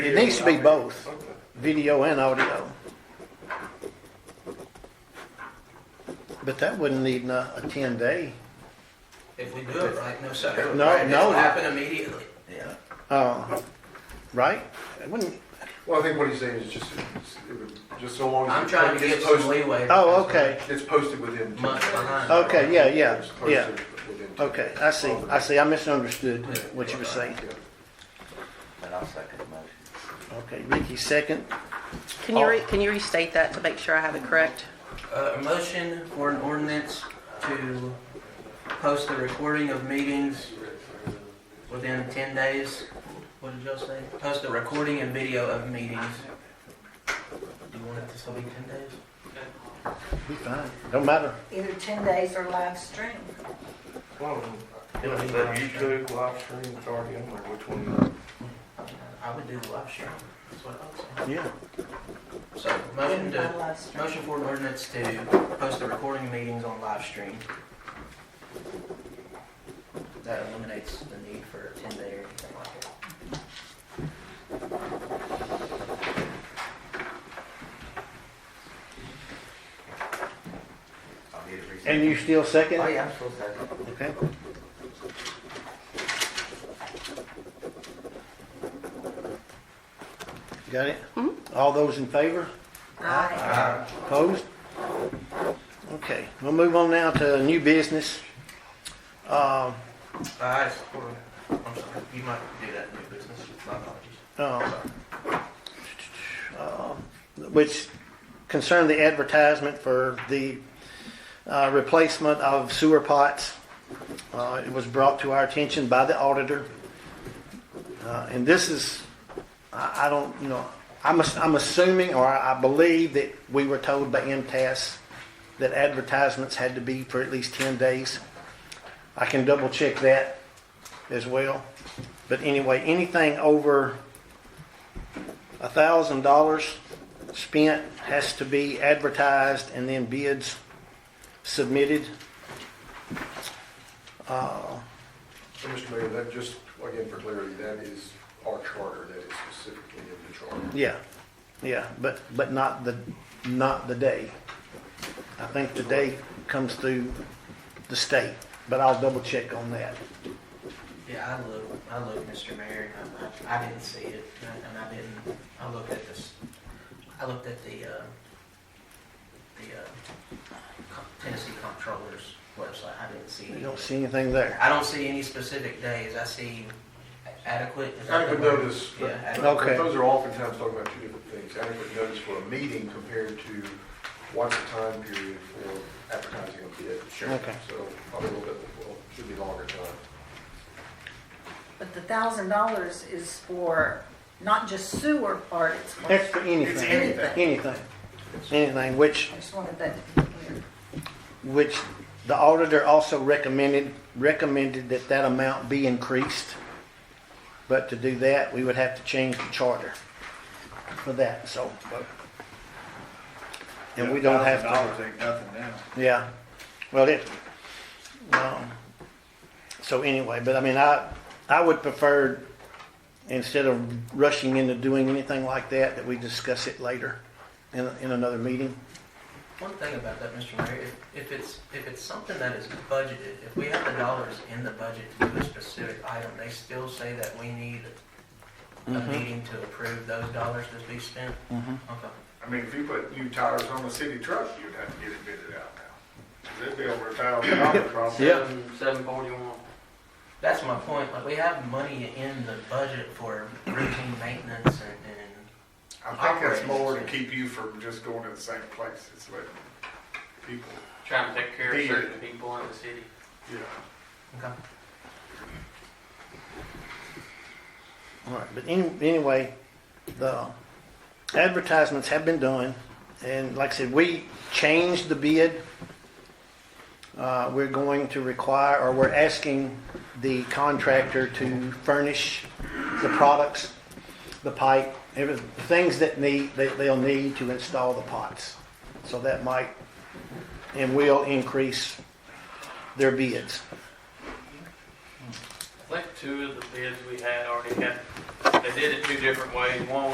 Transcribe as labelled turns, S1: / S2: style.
S1: It needs to be both, video and audio. But that wouldn't need not a ten day.
S2: If we do it right, no, sir.
S1: No,
S2: Right,
S1: no.
S2: It'll happen immediately.
S3: Yeah.
S1: Uh, right? It wouldn't,
S4: Well, I think what he's saying is just, it would- just so long
S2: I'm
S4: as
S2: trying to
S4: it-
S2: get
S4: it's
S2: some
S4: posted,
S2: leeway.
S1: oh, okay,
S4: it's posted within two
S2: Months
S4: days.
S2: behind.
S1: Okay, yeah, yeah,
S4: It's posted
S1: yeah.
S4: within two
S1: okay, I see, I see, I misunderstood what you were saying.
S4: days.
S3: And I'll second the motion.
S1: Okay, Ricky, second,
S5: Can you, re- can you restate that to make sure I have it correct?
S2: Uh, a motion for an ordinance to post the recording of meetings within ten days. What did y'all say? Post the recording and video of meetings. Do you want it to still be ten days?
S1: we fine, don't matter.
S6: either 10 days or live stream.
S2: It'll be live stream.
S4: live stream, Guardian, or which one?
S2: I would do the live stream. That's what I
S1: Yeah,
S2: would say. So motion
S6: By
S2: to,
S6: live stream.
S2: motion for an ordinance to post the recording of meetings on live stream. That eliminates the need for a ten day or anything like that.
S3: I'll need a reset.
S1: and you still
S3: Oh,
S1: second?
S3: yeah, I'm still second.
S1: Okay, got it? All those in favor?
S6: Aye.
S2: Uh,
S1: Opposed? Okay, we'll move on now to new business. Uh,
S2: I support it. I'm sorry, you might do that in your business, my apologies.
S1: uh, uh, Which concerned the advertisement for the uh, replacement of sewer pots. Uh, It was brought to our attention by the auditor. Uh, And this is, I I don't, you know, I'm ass- I'm assuming, or I believe that we were told by MTS that advertisements had to be for at least 10 days. I can double check that as well. But anyway, anything over $1,000 spent has to be advertised and then bids submitted. Uh,
S4: So, Mr. Mayor, that just, again, for clarity, that is our charter, that is specifically in the charter.
S1: Yeah, yeah, but, but not the, not the day. I think the day comes through the state, but I'll double check on that.
S2: Yeah, I look, I look, Mr. Mayor, and I, I didn't see it, and I- and I didn't, I looked at this, I looked at the, uh, the, uh, Co- Tennessee Comptroller's website, I didn't see
S1: You
S2: any.
S1: don't see anything there.
S2: I don't see any specific days, I see adequate. is that the
S4: Adequate
S2: word?
S4: notice, but-
S2: Yeah, adequate.
S4: but
S1: Okay.
S4: those are oftentimes talking about two different things. Adequate notice for a meeting compared to what's the time period for advertising a bid. Sure.
S1: Okay.
S4: So, a little bit, well, should be longer time.
S6: But the $1,000 is for not just sewer part, it's for...
S1: That's for anything.
S6: anything.
S1: Anything, anything, which
S6: I just wanted that to be clear.
S1: which the auditor also recommended, recommended that that amount be increased. But to do that, we would have to change the charter for that, so. but- And we don't have to,
S7: Dollars ain't nothing now.
S1: yeah, well, it, um, so anyway, but I mean, I, I would prefer, instead of rushing into doing anything like that, that we discuss it later in, in another meeting.
S2: One thing about that, Mr. Mayor, if, if it's, if it's something that is budgeted, if we have the dollars in the budget to do a specific item, they still say that we need a
S1: Mhm.
S2: meeting to approve those dollars to be spent?
S1: Mm-hmm.
S2: Okay.
S8: I mean, if you put new tires on the city truck, you'd have to get it bidded out now. It'd be over a thousand dollars probably.
S1: Yeah.
S9: Seven forty-one.
S2: That's my point, like, we have money in the budget for routine maintenance and,
S8: I think that's more to keep you from just going to the same place. It's letting people,
S9: Trying to take care of
S8: Yeah.
S9: certain people in the city.
S8: you know.
S2: and, okay.
S1: All right, but any, anyway, the advertisements have been done, and like I said, we changed the bid. Uh, we're going to require, or we're asking the contractor to furnish the products, the pipe, every, the things that need, that they'll need to install the pots. So that might, and will increase their bids.
S9: I think two of the bids we had already had They did it two different ways. One